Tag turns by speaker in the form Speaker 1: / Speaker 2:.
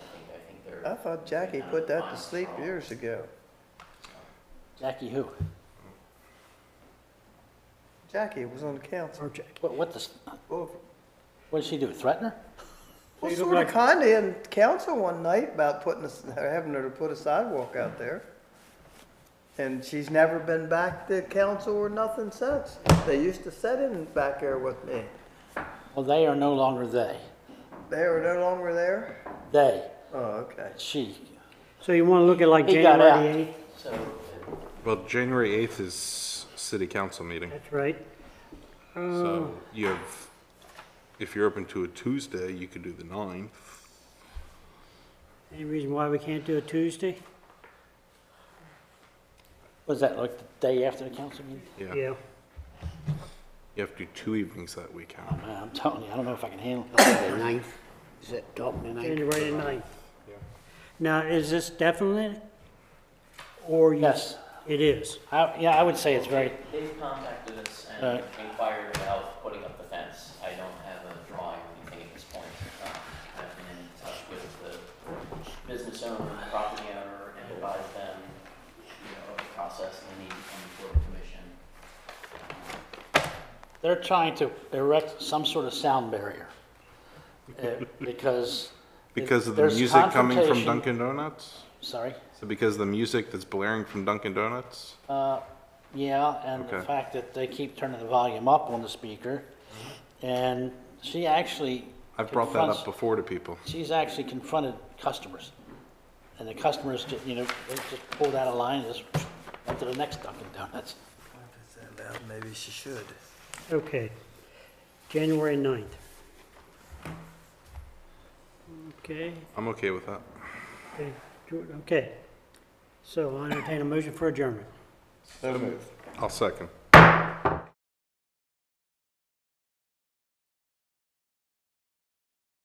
Speaker 1: I thought Jackie put that to sleep years ago.
Speaker 2: Jackie who?
Speaker 1: Jackie was on the council.
Speaker 3: Or Jack.
Speaker 2: What, what does,
Speaker 1: Well,
Speaker 2: what did she do, threaten her?
Speaker 1: well
Speaker 3: you look
Speaker 1: sort of
Speaker 3: like-
Speaker 1: kinda in council one night about putting, us- having her to put a sidewalk out there. And she's never been back to council or nothing since. They used to sit in back there with me.
Speaker 2: Well, they are no longer they.
Speaker 1: They were no longer there?
Speaker 2: They,
Speaker 1: Oh, okay.
Speaker 2: she.
Speaker 3: So you want to look at like
Speaker 2: He got out.
Speaker 3: January the 8th?
Speaker 2: So,
Speaker 4: Well, January 8th is city council meeting,
Speaker 3: That's right.
Speaker 2: Oh.
Speaker 4: so you have, if you're open to a Tuesday, you could do the 9th.
Speaker 3: Any reason why we can't do it Tuesday?
Speaker 2: was that like the day after the council meeting?
Speaker 4: Yeah, you
Speaker 3: Yeah.
Speaker 4: have to do two evenings that weekend.
Speaker 2: Oh, man, I'm telling you, I don't know if I can handle
Speaker 5: The
Speaker 2: it.
Speaker 5: ninth, is it Dalton the ninth?
Speaker 3: January the 9th. Now, is this definite? Or you?
Speaker 2: Yes,
Speaker 3: It is.
Speaker 2: I, yeah, I would say it's very,
Speaker 6: They've contacted us and
Speaker 2: Right.
Speaker 6: inquired about putting up the fence. I don't have a drawing or anything at this point. Uh, I've been in touch with the business owner, and the property owner, and advised them, you know, of the process and the need to come before the commission.
Speaker 2: they're trying to erect some sort of sound barrier. Uh, Because.
Speaker 4: Because of the
Speaker 2: there's
Speaker 4: music coming from
Speaker 2: confrontation-
Speaker 4: Dunkin' Donuts?
Speaker 2: Sorry,
Speaker 4: So because of the music that's blaring from Dunkin' Donuts?
Speaker 2: uh, yeah, and the
Speaker 4: Okay.
Speaker 2: fact that they keep turning the volume up on the speaker. And she actually.
Speaker 4: I've brought that up
Speaker 2: confronts-
Speaker 4: before to people.
Speaker 2: she's actually confronted customers. And the customers, ju- you know, they just pulled out a line and just went to the next Dunkin' Donuts.
Speaker 1: Maybe she should.
Speaker 3: Okay. January 9th. Okay,
Speaker 4: I'm okay with that.
Speaker 3: okay, Jordan, okay. So I entertain a motion for adjournment.
Speaker 4: I'll second.